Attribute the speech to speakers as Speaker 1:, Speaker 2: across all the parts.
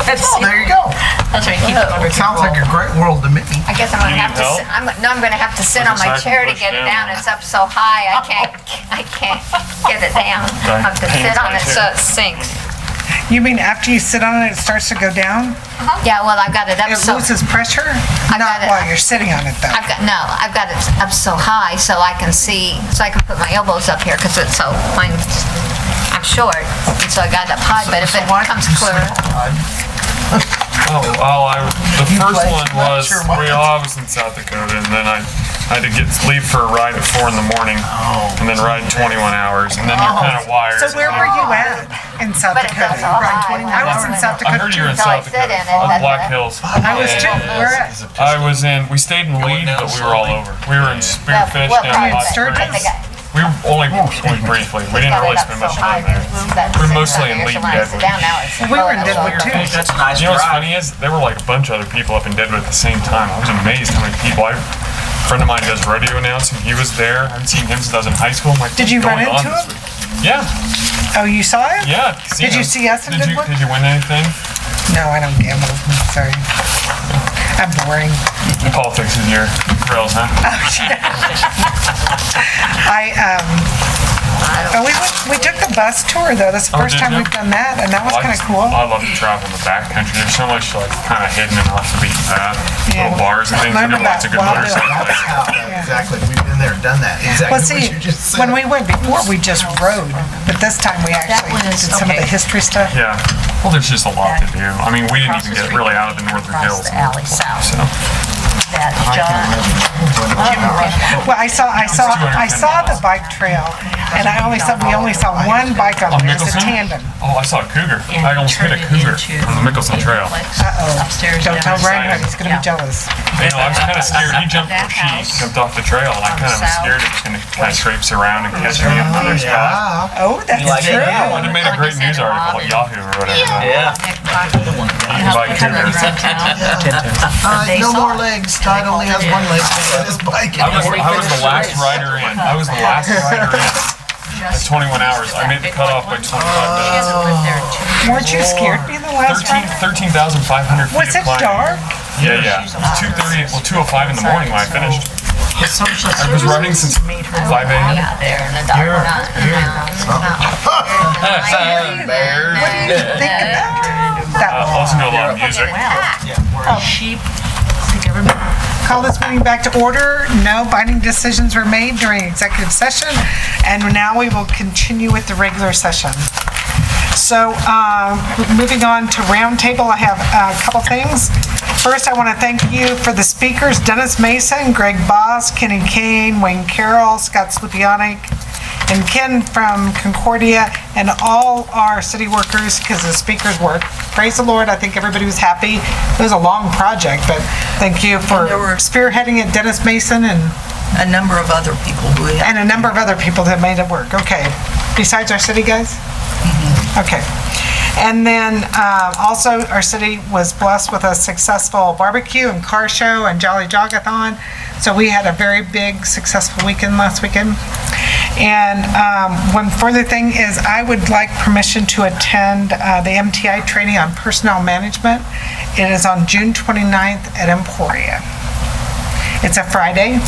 Speaker 1: Oh, there you go.
Speaker 2: That's right. Keep it under
Speaker 1: It sounds like a great world to me.
Speaker 3: Oh. I guess I'm gonna
Speaker 4: You
Speaker 3: have to,
Speaker 4: need help?
Speaker 3: sit- I'm, no, I'm gonna have to sit
Speaker 4: Put
Speaker 3: on
Speaker 4: the
Speaker 3: my
Speaker 4: side
Speaker 3: chair to
Speaker 4: push
Speaker 3: get it
Speaker 4: down.
Speaker 3: down. It's up so high, I can't, I can't get it down. I have to
Speaker 4: Hang
Speaker 3: sit
Speaker 4: it
Speaker 3: on
Speaker 4: by
Speaker 3: it
Speaker 4: the
Speaker 3: so
Speaker 4: chair.
Speaker 3: it sinks.
Speaker 2: Uh-huh.
Speaker 5: You mean after you sit on it, it starts to go down?
Speaker 3: Yeah, well, I've got it up
Speaker 5: It
Speaker 3: so,
Speaker 5: loses pressure?
Speaker 3: I got it.
Speaker 5: Not while you're sitting on it, though.
Speaker 3: I've got, no, I've got it up so high so I can see, so I can put my elbows up here because it's so, mine's, I'm short. And so I got it up high, but if it comes clearer,
Speaker 4: Oh, well, I, the first
Speaker 1: played
Speaker 4: one
Speaker 1: too much,
Speaker 4: was,
Speaker 1: or what?
Speaker 4: well, I was in South Dakota, and then I, I had to get, leave for a ride at four in the morning,
Speaker 5: Oh,
Speaker 4: and then ride twenty-one hours, and then you're kind of wired.
Speaker 5: So where were you at in South
Speaker 3: but it
Speaker 5: Dakota?
Speaker 3: goes all high.
Speaker 5: I was in South
Speaker 4: I heard you were
Speaker 3: So I
Speaker 4: in South
Speaker 5: Dakota.
Speaker 3: sit
Speaker 4: Dakota,
Speaker 3: in it,
Speaker 4: on
Speaker 3: that's
Speaker 4: Black
Speaker 3: what-
Speaker 4: Hills.
Speaker 5: I was too. Where at?
Speaker 4: I was in, we stayed in Lead, but we were all over. We were in Spearfish
Speaker 3: Well,
Speaker 4: down
Speaker 3: well,
Speaker 4: in Hot
Speaker 5: Sturgis?
Speaker 3: I think I-
Speaker 4: Springs. We were only, only briefly, we didn't
Speaker 3: got it
Speaker 4: really
Speaker 3: up
Speaker 4: spend
Speaker 3: so
Speaker 4: much
Speaker 3: high
Speaker 4: time there.
Speaker 3: that it's
Speaker 4: We're
Speaker 3: sitting
Speaker 4: mostly
Speaker 3: up here, so
Speaker 4: in League
Speaker 3: when I sit
Speaker 4: Deadwood.
Speaker 3: down now, it's
Speaker 5: We were
Speaker 3: lower,
Speaker 5: in
Speaker 3: so
Speaker 5: Deadwood,
Speaker 3: I'm
Speaker 5: too.
Speaker 1: That's a nice
Speaker 4: You know what's funny
Speaker 1: drive.
Speaker 4: is there were like a bunch of other people up in Deadwood at the same time. I was amazed how many people. I, a friend of mine does rodeo announcing. He was there. I haven't seen him since I was in high school. I'm like,
Speaker 5: Did you
Speaker 4: "What's
Speaker 5: run
Speaker 4: going on
Speaker 5: into
Speaker 4: this week?"
Speaker 5: him?
Speaker 4: Yeah,
Speaker 5: Oh, you saw it?
Speaker 4: yeah. I've seen
Speaker 5: Did you
Speaker 4: him.
Speaker 5: see us in
Speaker 4: did
Speaker 5: Deadwood?
Speaker 4: You, did you win anything?
Speaker 5: No, I don't gamble. I'm sorry. I'm boring.
Speaker 4: Politics is your rails, huh?
Speaker 5: I, um, oh, we, went- we took the bus tour, though. That's the
Speaker 4: Oh,
Speaker 5: first
Speaker 4: did
Speaker 5: time
Speaker 4: you?
Speaker 5: we've done that, and that was
Speaker 4: I
Speaker 5: kind of
Speaker 4: just-
Speaker 5: cool.
Speaker 4: I love to travel in the backcountry. There's so much like kind of hidden and off the beaten path.
Speaker 5: Yeah.
Speaker 4: Little bars and things.
Speaker 5: Learn
Speaker 4: We did lots of good
Speaker 5: about wild
Speaker 4: motorcycle
Speaker 5: dogs.
Speaker 4: places.
Speaker 1: Yeah, Exactly. We've been there, done that.
Speaker 5: Well,
Speaker 1: Exactly
Speaker 5: see,
Speaker 1: what you just said.
Speaker 5: when we went before, we just rode, but this time we actually
Speaker 2: one
Speaker 5: did
Speaker 2: is
Speaker 5: some of the
Speaker 2: okay.
Speaker 5: history stuff.
Speaker 4: Yeah. Well, there's just a lot to do. I mean, we didn't
Speaker 2: Across
Speaker 4: even
Speaker 2: the
Speaker 4: get
Speaker 2: street,
Speaker 4: really out of the northern
Speaker 2: across
Speaker 4: hills.
Speaker 2: the alley south.
Speaker 4: So.
Speaker 2: That John,
Speaker 5: Well, I saw, I saw, I saw the bike trail, and I only saw, we only saw one bike on
Speaker 4: On
Speaker 5: there, it was a
Speaker 4: Mickelson?
Speaker 5: tandem.
Speaker 4: Oh, I saw a cougar.
Speaker 2: and
Speaker 4: I almost hit
Speaker 2: turn
Speaker 4: a
Speaker 2: it
Speaker 4: cougar
Speaker 2: into
Speaker 4: on the Mickelson Trail.
Speaker 2: Netflix,
Speaker 5: Uh-oh.
Speaker 2: Upstairs.
Speaker 5: Don't tell
Speaker 2: downstairs.
Speaker 5: Reinhardt, he's gonna be
Speaker 2: Yeah.
Speaker 5: jealous.
Speaker 4: You know, I was kind of scared. He jumped,
Speaker 2: That
Speaker 4: she
Speaker 2: house.
Speaker 4: jumped off the trail, and I kind of was
Speaker 2: South.
Speaker 4: scared it was going to kind of traipse around and catch me on another spot.
Speaker 1: Yeah.
Speaker 5: Oh, that's
Speaker 1: like it?
Speaker 5: true.
Speaker 1: Yeah.
Speaker 4: Well, they made a
Speaker 2: Like I
Speaker 4: great
Speaker 2: said,
Speaker 4: news
Speaker 2: a
Speaker 4: article at Yahoo or whatever.
Speaker 1: Yeah.
Speaker 2: Nick Crockett,
Speaker 4: You
Speaker 2: helped
Speaker 4: buy
Speaker 2: me come
Speaker 4: cougars.
Speaker 2: around town.
Speaker 1: Uh,
Speaker 2: They
Speaker 1: no
Speaker 2: saw
Speaker 1: more
Speaker 2: it.
Speaker 1: legs. Todd only has one leg on his bike.
Speaker 4: I was, I was the last rider in. I was the last rider in. At 21 hours, I made the cutoff by 25 minutes.
Speaker 2: Hasn't
Speaker 5: Oh.
Speaker 2: lived there in two years.
Speaker 5: Weren't you scared me the last time?
Speaker 4: 13 13,500 feet
Speaker 5: Was
Speaker 4: of
Speaker 5: it
Speaker 4: climbing.
Speaker 5: dark?
Speaker 4: Yeah, yeah. It was 2:30, well, 2:05 in the morning when I finished. I was running since 5 a.m.
Speaker 2: Out there in the dark. Not in the mountains, not-
Speaker 5: What do you think about
Speaker 4: I
Speaker 5: that?
Speaker 4: also know a lot of music.
Speaker 2: Sheep, the government
Speaker 5: Call this meeting back to order. No binding decisions were made during executive session, and now we will continue with the regular session. So, uh, moving on to roundtable, I have a couple things. First, I want to thank you for the speakers, Dennis Mason, Greg Boss, Kenny Kane, Wayne Carroll, Scott Slupionik, and Ken from Concordia, and all our city workers, because the speakers were, praise the Lord, I think everybody was happy. It was a long project, but thank you for
Speaker 6: there were-
Speaker 5: spearheading it, Dennis Mason, and,
Speaker 6: a number of other people who had
Speaker 5: and a number of other people that made it work. Okay, besides our city guys? Okay. And then uh, also, our city was blessed with a successful barbecue and car show and Jolly Jogathon. So we had a very big, successful weekend last weekend. And um, one further thing is I would like permission to attend uh, the MTI training on personnel management. It is on June 29th at Emporia. It's a Friday.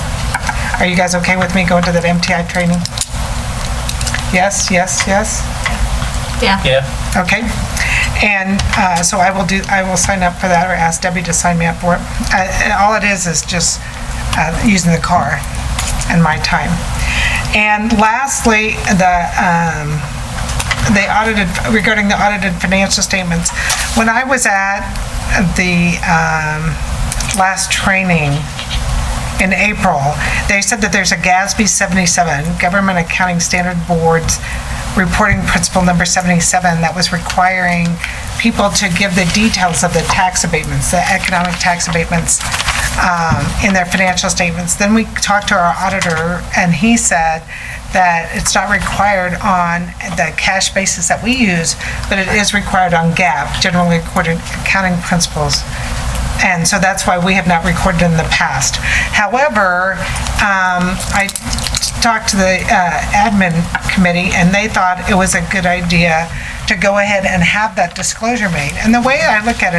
Speaker 5: Are you guys okay with me going to that MTI training? Yes, yes, yes? Okay. And uh, so I will do, I will sign up for that or ask Debbie to sign me up for it. Uh, and All it is, is just uh, using the car and my time. And lastly, the, um, the audited, regarding the audited financial statements, when I was at the um, last training in April, they said that there's a GASB 77, Government Accounting Standard Board's reporting principle number 77, that was requiring people to give the details of the tax abatements, the economic tax abatements um, in their financial statements. Then we talked to our auditor, and he said that it's not required on the cash basis that we use, but it is required on GAAP, generally recorded accounting principles. And so that's why we have not recorded in the past. However, um, I talked to the uh, admin committee, and they thought it was a good idea to go ahead and have that disclosure made. And the way I look at it